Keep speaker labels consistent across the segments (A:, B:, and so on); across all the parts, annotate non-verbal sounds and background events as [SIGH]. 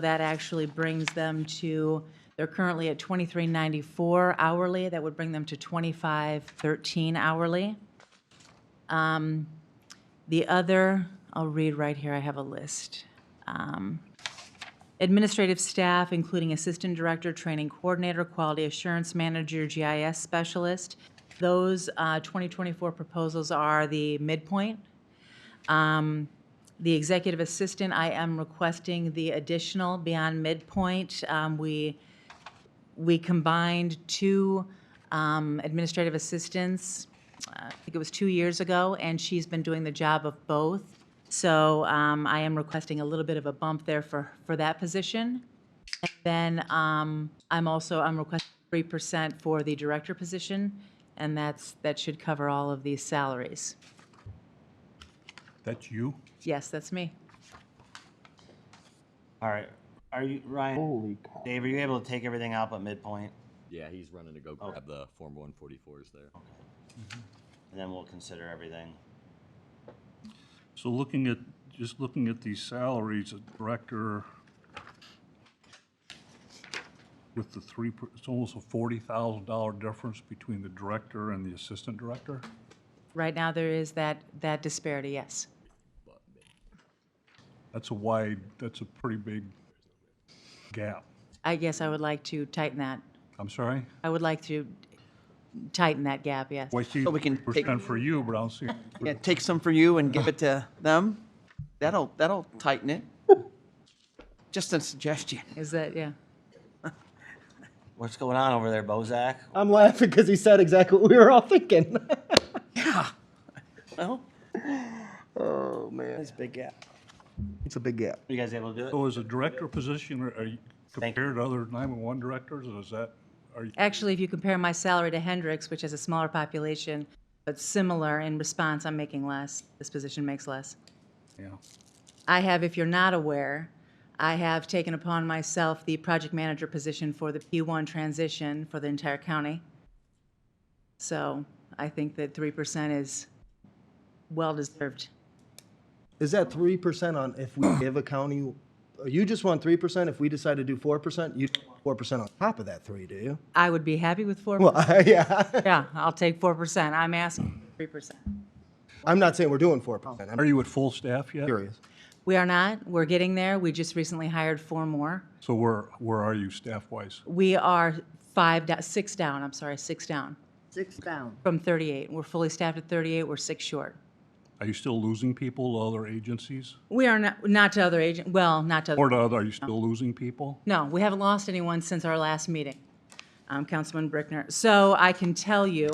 A: That actually brings them to, they're currently at 23.94 hourly. That would bring them to 25.13 hourly. Um, The other, I'll read right here, I have a list. Um, Administrative staff, including assistant director, training coordinator, quality assurance manager, GIS specialist. Those uh, 2024 proposals are the midpoint. Um, The executive assistant, I am requesting the additional beyond midpoint. Um, We, we combined two um, administrative assistants, uh, I think it was two years ago, and she's been doing the job of both. So um, I am requesting a little bit of a bump there for, for that position. And Then um, I'm also, I'm requesting 3% for the director position, and that's, that should cover all of these salaries.
B: That's you?
A: Yes, that's me.
C: All right. Are you Ryan? Holy cow. Dave, are you able to take everything out but midpoint?
D: Yeah, he's running to go grab the Form 144s there.
C: And then we'll consider everything.
B: So looking at, just looking at these salaries, a director with the three, per- it's almost a forty thousand dollar difference between the director and the assistant director?
A: Right now, there is that, that disparity, yes.
B: That's a wide, that's a pretty big gap.
A: I guess I would like to tighten that.
B: I'm sorry?
A: I would like to tighten that gap, yes.
B: Well, I see
E: So we can take-
B: percent for you, but I don't see,
E: Yeah, take some for you and give it to them. That'll, that'll tighten it. Just a suggestion.
A: Is that, yeah.
C: What's going on over there, Bozak?
F: I'm laughing because he said exactly what we were all thinking. [LAUGHS]
E: Well,
F: oh man, it's a big gap. It's a big gap.
C: Are you guys able to do it?
B: so is a director position, or are you
C: Thank-
B: compared to other nine-one-one directors, or is that, are you,
A: Actually, if you compare my salary to Hendricks, which has a smaller population, but similar in response, I'm making less. This position makes less.
B: yeah?
A: I have, if you're not aware, I have taken upon myself the project manager position for the P1 transition for the entire county. So I think that 3% is well-deserved.
F: Is that three percent on if we give a county? You just want three percent. If we decide to do four percent, you four percent on top of that three, do you? [LAUGHS]
A: I would be happy with 4%.
F: Well, yeah. [LAUGHS]
A: Yeah, I'll take 4%. I'm asking 3%.
F: I'm not saying we're doing four percent.
B: Are
F: I'm
B: you at full staff yet?
F: curious.
A: We are not, we're getting there. We just recently hired four more.
B: So where, where are you staff-wise?
A: We are five, do- six down, I'm sorry, six down
G: Six down.
A: from 38. We're fully staffed at 38, we're six short.
B: Are you still losing people to other agencies?
A: We are not, not to other agent, well, not to,
B: Or
A: other.
B: to other, are you still losing people?
A: no, we haven't lost anyone since our last meeting, um, Councilman Brickner. So I can tell you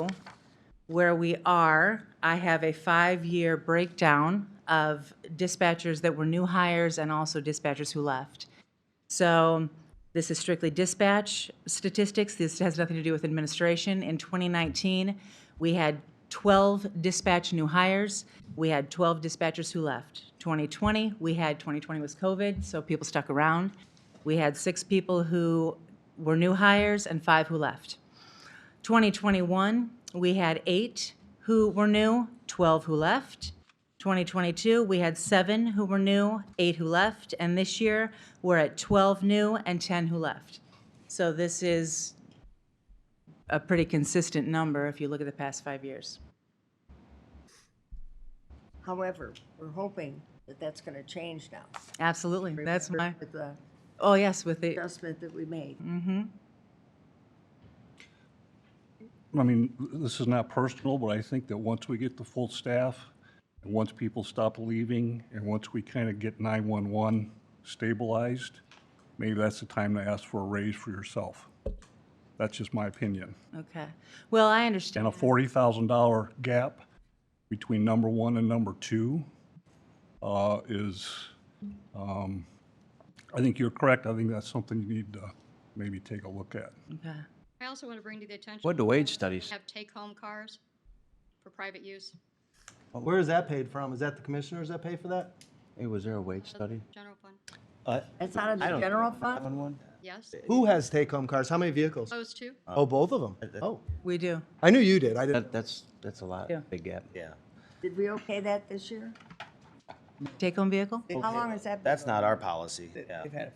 A: where we are. I have a five-year breakdown of dispatchers that were new hires and also dispatchers who left. So this is strictly dispatch statistics. This has nothing to do with administration. In 2019, we had 12 dispatch new hires. We had 12 dispatchers who left. 2020, we had, 2020 was COVID, so people stuck around. We had six people who were new hires and five who left. 2021, we had eight who were new, 12 who left. 2022, we had seven who were new, eight who left, and this year, we're at 12 new and 10 who left. So this is a pretty consistent number if you look at the past five years.
G: However, we're hoping that that's going to change now.
A: Absolutely, that's my, Mm.
G: With the
A: oh, yes, with the,
G: adjustment that we made.
B: I mean, this is not personal, but I think that once we get the full staff, and once people stop leaving, and once we kind of get 911 stabilized, maybe that's the time to ask for a raise for yourself. That's just my opinion.
A: okay. Well, I understand.
B: And a $40,000 gap between number one and number two uh, is, um, I think you're correct. I think that's something you need to maybe take a look at.
A: Okay.
H: I also want to bring to the attention.
I: What do wage studies?
H: Have take-home cars for private use,
F: Where is that paid from? Is that the commissioners that pay for that?
I: Hey, was there a wage study?
H: general fund,
G: That's out of the general fund?
H: yes,
F: Who has take-home cars? How many vehicles?
H: those two.
F: Oh, both of them. Oh,
A: We do.
F: I knew you did. I didn't.
I: That, that's, that's a lot,
A: Yeah.
I: big gap.
C: Yeah.
G: Did we okay that this year?
A: Take-home vehicle?
G: How long has that been?
C: That's not our policy. Yeah.